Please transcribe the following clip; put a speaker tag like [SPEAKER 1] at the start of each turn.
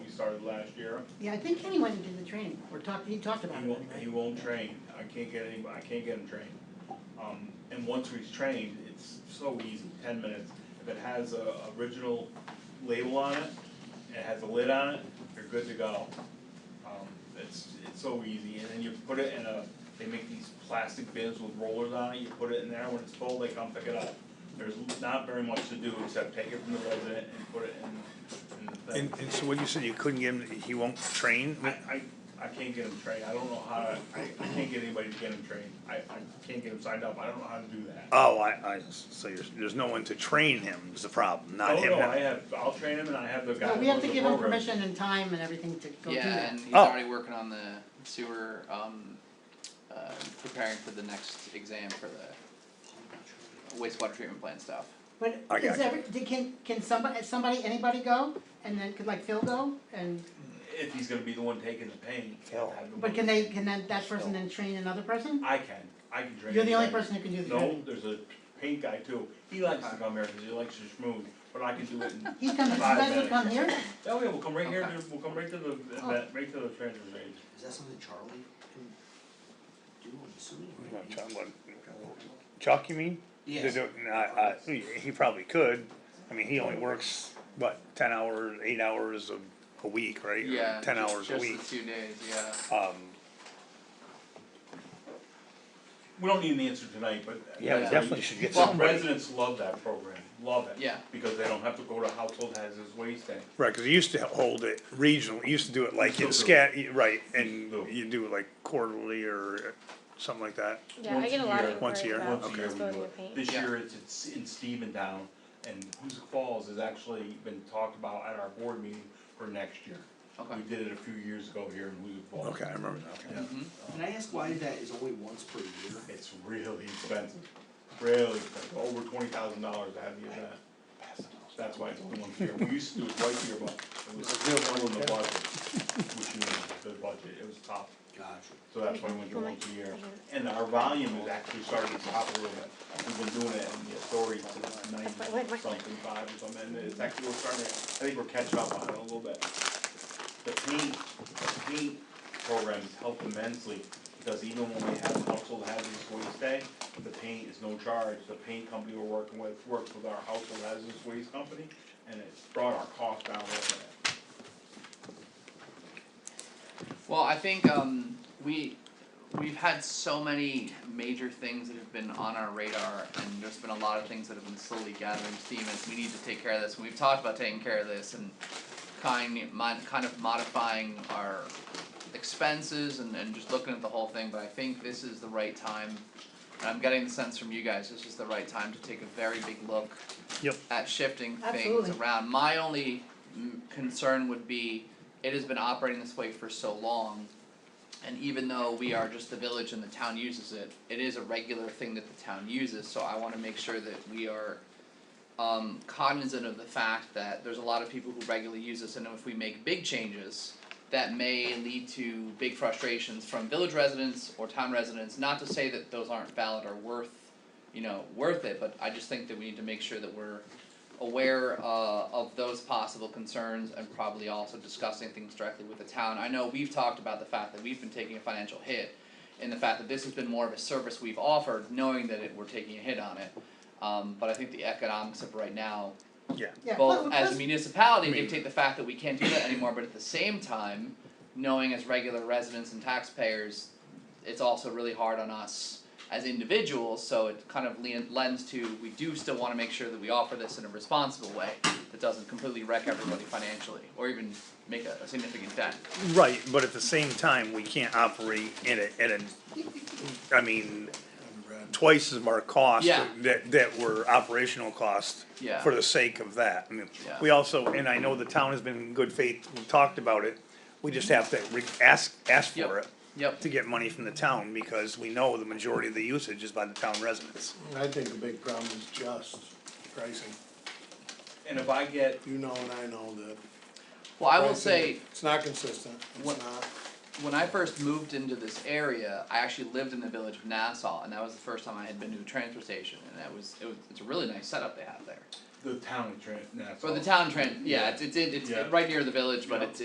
[SPEAKER 1] started last year.
[SPEAKER 2] Yeah, I think Kenny went and did the training, or talked, he talked about
[SPEAKER 1] He
[SPEAKER 2] it
[SPEAKER 1] won't, he
[SPEAKER 2] anyway.
[SPEAKER 1] won't train, I can't get any, I can't get him trained. Um, and once he's trained, it's so easy, ten minutes, if it has a original label on it, it has a lid on it, you're good to go. Um, it's, it's so easy, and then you put it in a, they make these plastic bins with rollers on it, you put it in there, when it's full, they come pick it up. There's not very much to do except take it from the resident and put it in, in the thing.
[SPEAKER 3] And, and so when you said you couldn't get him, he won't train?
[SPEAKER 1] I, I, I can't get him trained, I don't know how to, I, I can't get anybody to get him trained, I, I can't get him signed up, I don't know how to do that.
[SPEAKER 3] Oh, I, I, so there's, there's no one to train him is the problem, not
[SPEAKER 1] Oh,
[SPEAKER 3] him.
[SPEAKER 1] no, I have, I'll train him and I have the guy.
[SPEAKER 2] No, we
[SPEAKER 1] that runs
[SPEAKER 2] have to
[SPEAKER 1] the
[SPEAKER 2] give him
[SPEAKER 1] program.
[SPEAKER 2] permission and time and everything to go do
[SPEAKER 4] Yeah,
[SPEAKER 2] that.
[SPEAKER 4] and he's
[SPEAKER 3] Oh.
[SPEAKER 4] already working on the sewer, um, uh, preparing for the next exam for the wastewater treatment plant stuff.
[SPEAKER 2] But
[SPEAKER 3] I
[SPEAKER 2] is
[SPEAKER 3] got you.
[SPEAKER 2] every, did- can, can somebody, somebody, anybody go? And then, could like Phil go? And,
[SPEAKER 1] If he's gonna be the one taking the pain.
[SPEAKER 3] Hell.
[SPEAKER 1] have the
[SPEAKER 2] but
[SPEAKER 1] one-
[SPEAKER 2] can they, can then that person then train another person?
[SPEAKER 1] I can, I can train.
[SPEAKER 2] You're the only
[SPEAKER 1] anybody.
[SPEAKER 2] person who can do the
[SPEAKER 1] No,
[SPEAKER 2] training.
[SPEAKER 1] there's a paint guy too, he likes to come here because he likes to schmooze, but I can do it in,
[SPEAKER 2] He comes, you
[SPEAKER 1] Five
[SPEAKER 2] guys will
[SPEAKER 1] minutes.
[SPEAKER 2] come here?
[SPEAKER 1] oh yeah, we'll come right here,
[SPEAKER 4] Okay.
[SPEAKER 1] to- we'll come right to the,
[SPEAKER 2] Oh.
[SPEAKER 1] event, right to the transfer station.
[SPEAKER 5] Is that something Charlie can do, I'm assuming, right?
[SPEAKER 3] Chuck, you mean?
[SPEAKER 5] Yes.
[SPEAKER 3] They don't- I- I- he probably could, I mean, he only works, what, ten hours, eight hours a, a week, right? Or
[SPEAKER 4] Yeah,
[SPEAKER 3] Ten
[SPEAKER 4] just-
[SPEAKER 3] hours a week,
[SPEAKER 4] Just the two days, yeah.
[SPEAKER 3] um,
[SPEAKER 1] We don't need an answer tonight, but.
[SPEAKER 3] yeah, we
[SPEAKER 4] Yeah.
[SPEAKER 3] definitely should get
[SPEAKER 1] Well,
[SPEAKER 3] somebody.
[SPEAKER 1] residents love that program, love it.
[SPEAKER 4] Yeah.
[SPEAKER 1] Because they don't have to go to household hazardous waste tank.
[SPEAKER 3] Right, cause he used to hold it regional, he used to do it like in
[SPEAKER 1] Still do
[SPEAKER 3] scat, right, and
[SPEAKER 1] Still do.
[SPEAKER 3] you do it like quarterly or something like that.
[SPEAKER 6] Yeah, I
[SPEAKER 1] Once
[SPEAKER 6] get
[SPEAKER 1] a
[SPEAKER 6] a lot
[SPEAKER 1] year.
[SPEAKER 6] of
[SPEAKER 3] Once a
[SPEAKER 6] inquiries
[SPEAKER 3] year.
[SPEAKER 6] about
[SPEAKER 1] Once a year we do
[SPEAKER 6] disposable
[SPEAKER 1] it.
[SPEAKER 6] paint.
[SPEAKER 1] This
[SPEAKER 4] Yeah.
[SPEAKER 1] year it's, it's in Stevendown, and Hoosick Falls has actually been talked about at our board meeting for next year.
[SPEAKER 4] Okay. Mm-hmm.
[SPEAKER 1] We did it a few years ago here in Hoosick Falls. Um,
[SPEAKER 3] Okay, I remember that,
[SPEAKER 1] Yeah.
[SPEAKER 5] Can I ask why that is only once per year?
[SPEAKER 1] It's really expensive, really expensive, over twenty thousand dollars to have the event. That's why it's only once a year, we used to do it twice a year, but it was still in the budget, which means the budget, it was tough.
[SPEAKER 5] Gotcha.
[SPEAKER 1] So that's why we went to
[SPEAKER 6] Well, my-
[SPEAKER 1] once a year,
[SPEAKER 6] okay.
[SPEAKER 1] and our volume is actually starting to drop a little bit, we've been doing it in the authority since
[SPEAKER 6] Wait, wait,
[SPEAKER 1] ninety
[SPEAKER 6] wait.
[SPEAKER 1] something five or something, and it's actually, we're starting, to- I think we're catching up on it a little bit. The paint, the paint programs help immensely, because even when we have household hazardous waste day, the paint is no charge, the paint company we're working with works with our household hazardous waste company, and it's brought our cost down a little bit.
[SPEAKER 4] Well, I think um we we've had so many major things that have been on our radar and there's been a lot of things that have been slowly gathering steam as we need to take care of this and we've talked about taking care of this and kind mod- kind of modifying our expenses and and just looking at the whole thing, but I think this is the right time and I'm getting the sense from you guys, this is the right time to take a very big look
[SPEAKER 3] Yep.
[SPEAKER 4] at shifting things
[SPEAKER 2] Absolutely.
[SPEAKER 4] around. My only mm, concern would be, it has been operating this way for so long. And even though we are just the village and the town uses it, it is a regular thing that the town uses, so I wanna make sure that we are um cognizant of the fact that there's a lot of people who regularly use this and if we make big changes that may lead to big frustrations from village residents or town residents, not to say that those aren't valid or worth, you know, worth it, but I just think that we need to make sure that we're aware uh of those possible concerns and probably also discussing things directly with the town. I know we've talked about the fact that we've been taking a financial hit and the fact that this has been more of a service we've offered, knowing that it, we're taking a hit on it. Um but I think the economics of right now
[SPEAKER 2] Yeah,
[SPEAKER 4] both
[SPEAKER 2] but-
[SPEAKER 4] as a municipality
[SPEAKER 3] I mean-
[SPEAKER 4] dictate the fact that we can't do that anymore, but at the same time, knowing as regular residents and taxpayers, it's also really hard on us as individuals, so it kind of lean, lends to, we do still wanna make sure that we offer this in a responsible way that doesn't completely wreck everybody financially, or even make a, a significant dent.
[SPEAKER 3] Right, but at the same time, we can't operate at a, at a, I mean, twice of our cost
[SPEAKER 4] Yeah.
[SPEAKER 3] that, that were operational cost
[SPEAKER 4] Yeah.
[SPEAKER 3] for the sake of that. I mean,
[SPEAKER 4] Yeah.
[SPEAKER 3] we also, and I know the town has been in good faith, we talked about it, we just have to re- ask, ask
[SPEAKER 4] Yep.
[SPEAKER 3] for it
[SPEAKER 4] Yep,
[SPEAKER 3] to get money from the town, because we know the majority of the usage is by the town residents.
[SPEAKER 7] I think the big problem is just pricing.
[SPEAKER 1] And if I get
[SPEAKER 7] You know and I know that.
[SPEAKER 4] well, I will
[SPEAKER 7] pricing-
[SPEAKER 4] say,
[SPEAKER 7] It's not consistent, it's
[SPEAKER 4] What-
[SPEAKER 7] not,
[SPEAKER 4] when I first moved into this area, I actually lived in the village of Nassau, and that was the first time I had been to a transfer station, and that was, it was, it's a really nice setup they have there.
[SPEAKER 1] the town of Trent, that's
[SPEAKER 4] For the
[SPEAKER 1] all.
[SPEAKER 4] town trend, yeah, it's it's it's,
[SPEAKER 1] Yeah.
[SPEAKER 4] right near the village, but
[SPEAKER 1] Yeah.
[SPEAKER 4] it's